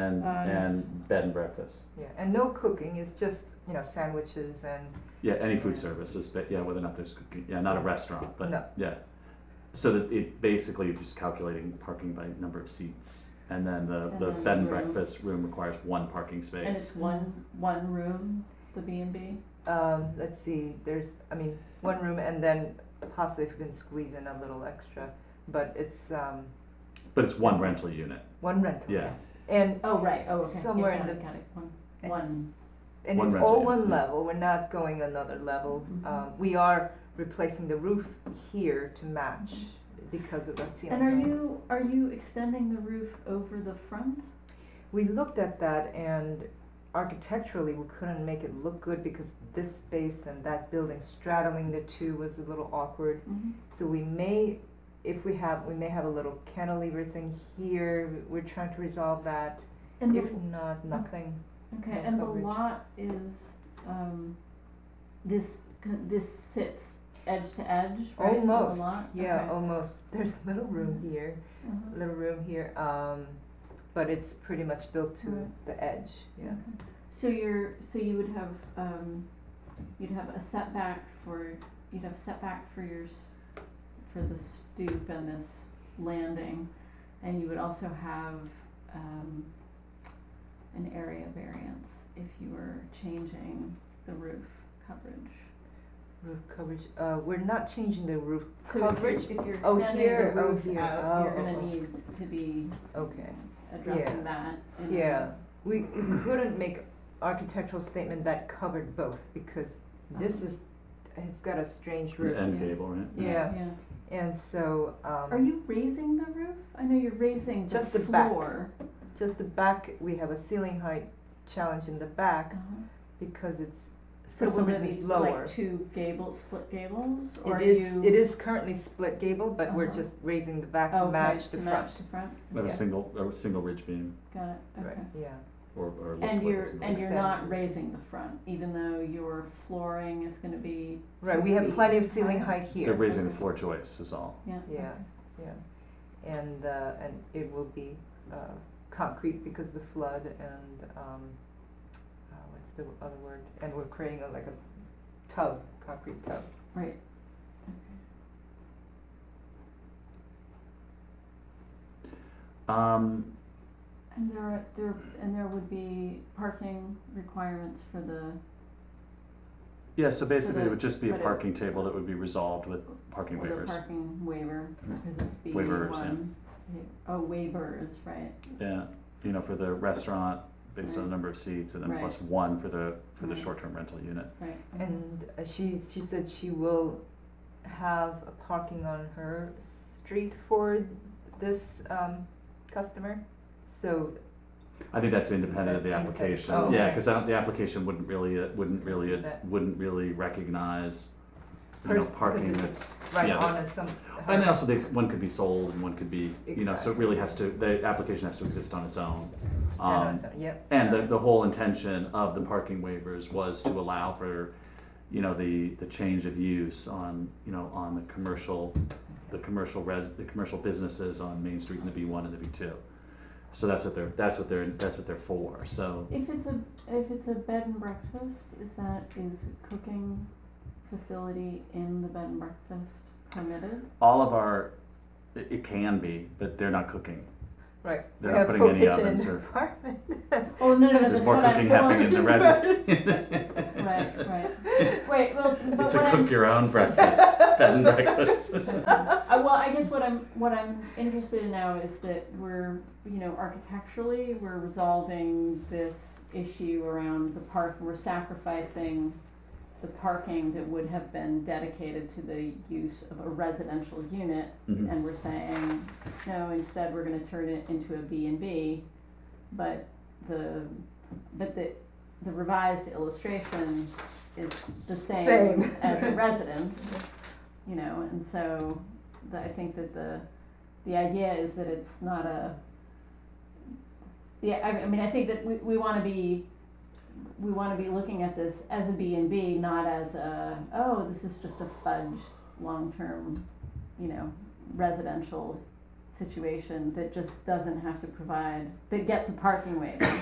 and, Um, and bed and breakfast. Yeah, and no cooking, it's just, you know, sandwiches and, Yeah, any food services, but yeah, whether or not there's, cooking- yeah, not a restaurant, No. but, yeah. So that it, basically, you're just calculating parking by number of seats, and then the, the And bed and the room. breakfast room requires one parking And space. it's one, one room, the B and B? um, let's see, there's, I mean, one room and then possibly if we can squeeze in a little extra, but it's, um, But it's one This is- rental unit, one rental. yeah, And, Oh, right, oh, okay. Yeah, Somewhere in got it, the- got it. One- It's- One, and One it's rental, all yeah, one yeah. level, we're not going another level. Mhm. Um, we are replacing the roof here to match because of that ceiling. and are height. you, are you extending the roof over the front? We looked at that and architecturally, we couldn't make it look good because this space and that building straddling the two was a little awkward. So we may, if we have, we may have a little cantilever thing here, we're trying to resolve that. And If the, not, nothing. okay, no and the coverage. lot is, um, this, this sits edge to edge, right, of the Almost, lot? yeah, Okay. almost. There's a little room here, Uh-huh. little room here, um, but it's pretty much built to Right. the edge, yeah. Okay. So you're, so you would have, um, you'd have a setback for, you'd have setback for your, s- for the stoop and this landing, and you would also have, um, an area variance if you were changing the roof coverage. Roof coverage, uh, we're not changing the roof So if you're, coverage, if you're Oh, extending here, the oh, roof here. out, you're Oh, oh, gonna oh. need to be okay. Yeah. addressing that in a- Yeah, we, we couldn't make architectural statement that covered both because this is, it's got a strange roof. end yeah. cable, right? Yeah. Yeah. And so, um. Are you raising the roof? I know you're raising the Just the back. floor. Just the back, we have a ceiling height challenge in the back Uh-huh. because it's, So for some will there reason, be it's lower. like two gables, split gables, or It are is, you? it is currently split gable, but we're Uh-huh. just raising the back Oh, to okay, match the to front. match the front. With a Yeah. single, a single ridge beam, Got it. Right, Okay. yeah. or, or. And like a you're single ridge. and you're Extend. not raising the front, even though your flooring is going to be Right, we have feet plenty of ceiling higher. height They're here, raising the floor joists is all, yeah. Yeah. okay. yeah. And, uh, and it will be, uh, concrete because of the flood and, um, uh, what's the other word? And we're creating a, like a tub, concrete tub. Right. um, And there are, there and there would be parking requirements for the yeah, so basically, it the- would just be a for the- parking table that would be resolved with parking for the waivers, parking waiver. Mhm. This B Waivers, yeah. one. Oh, waivers, right? yeah, you know, for the restaurant, based on the Right. number of seats, and then Right. plus one for the, for the Right. short-term rental unit. Right. okay. And uh, she, she said she will have a parking on her street for this, um, customer. So, I think that's independent of the That's independent. application. Oh, Yeah, okay. because I don't, the application wouldn't really, uh, wouldn't really, Consider uh, that. wouldn't really recognize, you know, Pers- parking because that's, right yeah. on a some. And then also, they, one could be sold and one could be, you know, so it really has to, the application has to exist on its own. um, Yep, And the, the whole intention of the parking waivers was to allow for, you know, the, the change of use on, you know, on the commercial, the commercial res, the commercial businesses on Main Street in the B one and the B two. So that's what they're, that's what they're, that's what they're for, so. If it's a, if it's a bed and breakfast, is that, is cooking facility in the bed and breakfast permitted? all of our it, it can be but they're not cooking right. We they're not have putting full any kitchen in ovens the or- apartment. Oh, no, no, no, there's that's more what I'm cooking happening in the going- resi Right, right. Wait, well, but it's what a cook I'm, your own breakfast bed and breakfast uh, well, I guess what I'm, what I'm interested in now is that we're, you know, architecturally, we're resolving this issue around the park, we're sacrificing the parking that would have been dedicated to the use of a residential unit Mhm. and we're saying, no, instead we're gonna turn it into a B and B. But the, but the, the revised illustration is the same Same. as a residence, you know, and so the, I think that the, the idea is that it's not a, yeah, I, I mean, I think that we, we wanna be, we wanna be looking at this as a B and B, not as a, oh, this is just a fudged long-term, you know, residential situation that just doesn't have to provide, that gets a parking waiver.